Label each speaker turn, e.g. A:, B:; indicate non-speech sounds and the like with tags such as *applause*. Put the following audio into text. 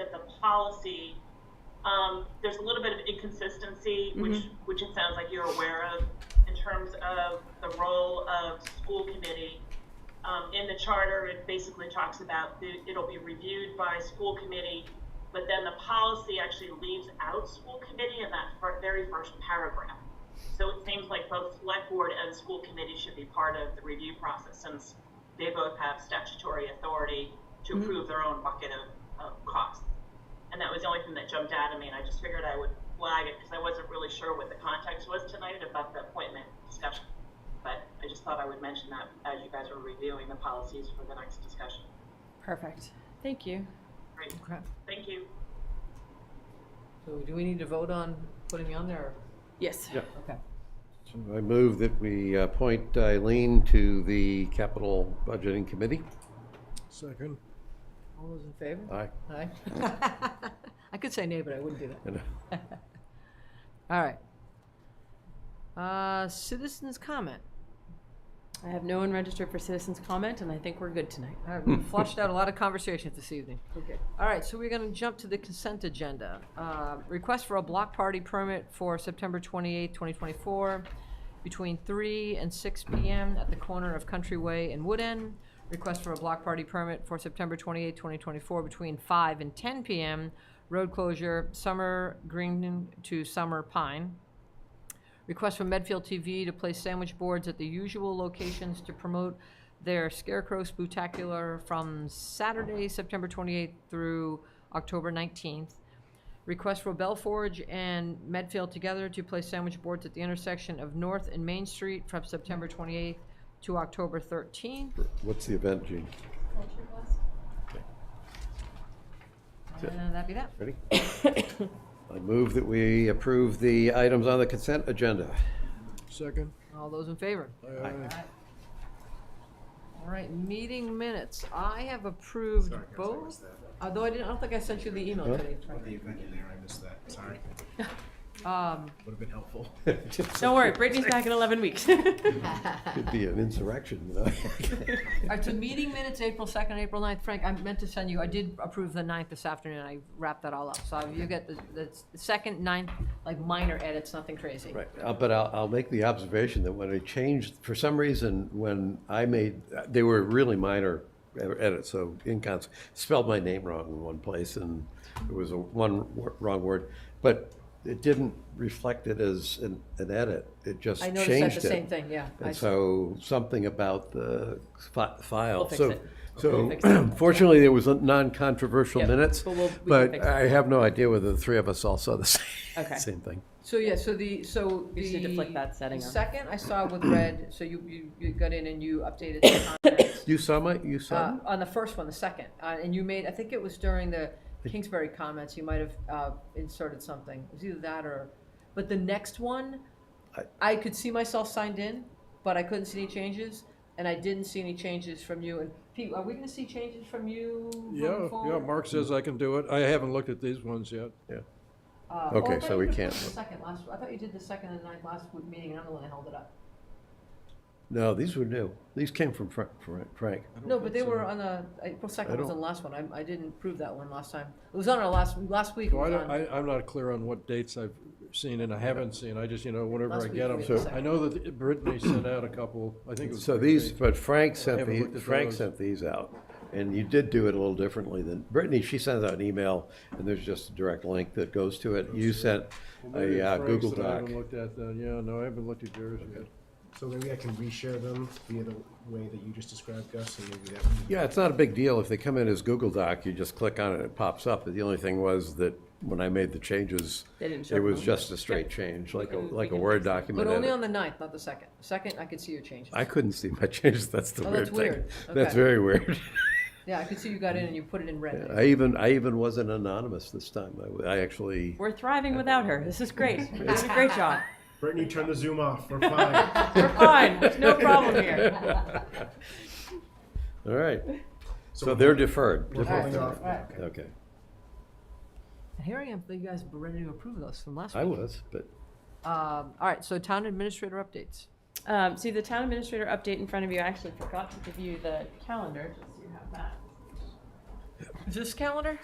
A: at the policy, um, there's a little bit of inconsistency, which, which it sounds like you're aware of, in terms of the role of school committee. Um, in the charter, it basically talks about the, it'll be reviewed by school committee, but then the policy actually leaves out school committee in that fir- very first paragraph. So it seems like both select board and school committee should be part of the review process since they both have statutory authority to approve their own bucket of, of costs. And that was the only thing that jumped out at me and I just figured I would flag it because I wasn't really sure what the context was tonight about the appointment discussion. But I just thought I would mention that as you guys were reviewing the policies for the next discussion.
B: Perfect. Thank you.
A: Great,
C: Okay,
A: thank you.
C: so do we need to vote on putting me on there?
B: Yes.
D: Yeah.
C: Okay.
D: I move that we appoint Eileen to the Capital Budgeting Committee.
E: Second.
C: All those in favor?
D: Aye.
C: *laughs* Aye. I could say nay, but I wouldn't do that.
D: And, uh,
C: All right. Uh, citizens comment.
B: I have no one registered for citizens comment, and I think we're good tonight.
C: All right, we flushed out a lot of conversations this evening. Okay. All right, so we're going to jump to the consent agenda. Uh, Request for a block party permit for September 28, 2024, between 3 and 6 p.m. at the corner of Countryway and Wood End. Request for a block party permit for September 28, 2024, between 5 and 10 p.m., road closure, Summer Green to Summer Pine. Request from Medfield TV to place sandwich boards at the usual locations to promote their Scarecrow Spooktacular from Saturday, September 28th through October 19th. Request for Bell Forge and Medfield together to place sandwich boards at the intersection of North and Main Street from September 28th to October 13th.
D: What's the event, Gene?
C: And that'd be that.
D: Ready? I move that we approve the items on the consent agenda.
E: Second. Uh,
C: All those in favor?
E: Aye.
C: All right, meeting minutes. I have approved both, although I didn't, I don't think I sent you the email today.
F: The event in there, I missed that, sorry.
C: Um,
F: Would have been helpful. *laughs*
B: Don't worry, Brittany's back in 11 weeks. *laughs*
D: Could be an insurrection. you know? *laughs*
C: All right, so meeting minutes, April 2nd, April 9th. Frank, I meant to send you, I did approve the 9th this afternoon. I wrapped that all up. So you get the, the 2nd, 9th, like minor edits, nothing crazy.
D: Right, uh, but I'll, I'll make the observation that when I changed, for some reason, when I made, they were really minor edits, so incons, spelled my name wrong in one place, and it was a one wor- wrong word, but it didn't reflect it as an, an edit, it just
C: I
D: changed it.
C: noticed that the same thing, yeah. I
D: And so something about the fi- file.
B: We'll fix
D: So-
B: it. fix
D: So *clears throat* fortunately, there was a non-controversial
B: Yep,
D: minutes,
B: but we'll- we can
D: but
B: fix it.
D: I have no idea whether the three of us all saw the *laughs* same,
B: Okay.
D: same thing.
C: So, yeah, so the, so the.
B: We just need to flick that setting
C: the
B: on.
C: Second, I saw with red, so you, you, you got in and you updated the comments.
D: You saw my, you
C: Uh,
D: saw?
C: on the first one, the second, uh, and you made, I think it was during the Kingsbury comments, you might have, uh, inserted something. It was either that or, but the next one,
D: I-
C: I could see myself signed in, but I couldn't see any changes, and I didn't see any changes from you. And Pete, are we gonna see changes from you
E: Yeah,
C: moving
E: yeah,
C: forward?
E: Mark says I can do it. I haven't looked at these ones yet.
C: Uh,
D: Okay,
C: oh, I thought
D: so
C: you
D: we
C: did
D: can't
C: the
D: vote.
C: Second last, I thought you did the second and ninth last w- meeting, and I'm the one that held it up.
D: No, these were new. These came from Fra- Fra- Frank.
C: No, but they were on the, April
D: I
C: second was the
D: don't-
C: last one. I, I didn't prove that one last time. It was on our last, last week it
E: So I
C: was on.
E: don't, I, I'm not clear on what dates I've seen and I haven't seen. I just, you know, whenever
C: Last
E: I
C: week
E: get
C: we
E: them.
C: had the second.
E: I know that Brittany sent out a couple, I think it was.
D: So
E: Brittany.
D: these, but Frank sent
E: haven't looked
D: the,
E: at
D: Frank
E: those.
D: sent these out. And you did do it a little differently than, Brittany, she sends out an email and there's just a direct link that goes to it. You sent
E: Well, maybe
D: a uh,
E: Frank's
D: Google
E: that I
D: Doc.
E: haven't looked at then. Yeah, no, I haven't looked at yours yet.
F: So maybe I can reshare them via the way that you just described, Gus, and maybe that would be.
D: Yeah, it's not a big deal. If they come in as Google Doc, you just click on it, it pops up. The only thing was that when I made the changes,
B: They didn't show
D: it was
B: them.
D: just a straight change, like a,
B: can- we
D: like a
B: can
D: Word
B: fix it.
D: document.
C: But only
D: edit.
C: on the ninth, not the second. Second, I could see your changes.
D: I couldn't see my *laughs* changes. That's the
C: Oh,
D: weird
C: that's
D: thing.
C: weird.
D: That's
C: Okay.
D: very weird.
C: Yeah, I could see you got in and you put it in red.
D: I even, I even wasn't anonymous this time. I w- I, actually,
B: We're thriving without her. This is great.
D: *laughs*
B: You're doing a great job.
F: Brittany, turn the Zoom off, we're fine.
B: We're fine. There's no problem
D: *laughs*
B: here.
D: all right. *laughs* So
F: we're
D: they're
F: holding-
D: deferred.
F: We're holding
D: Deferred.
F: off, okay.
D: Okay.
C: Here I am, you guys were ready to approve those from last week.
D: I was, but
C: Um, all right, so town administrator updates.
B: Um, see the town administrator update in front of you. I actually forgot to give you the calendar, just so you have that.
C: Is this calendar?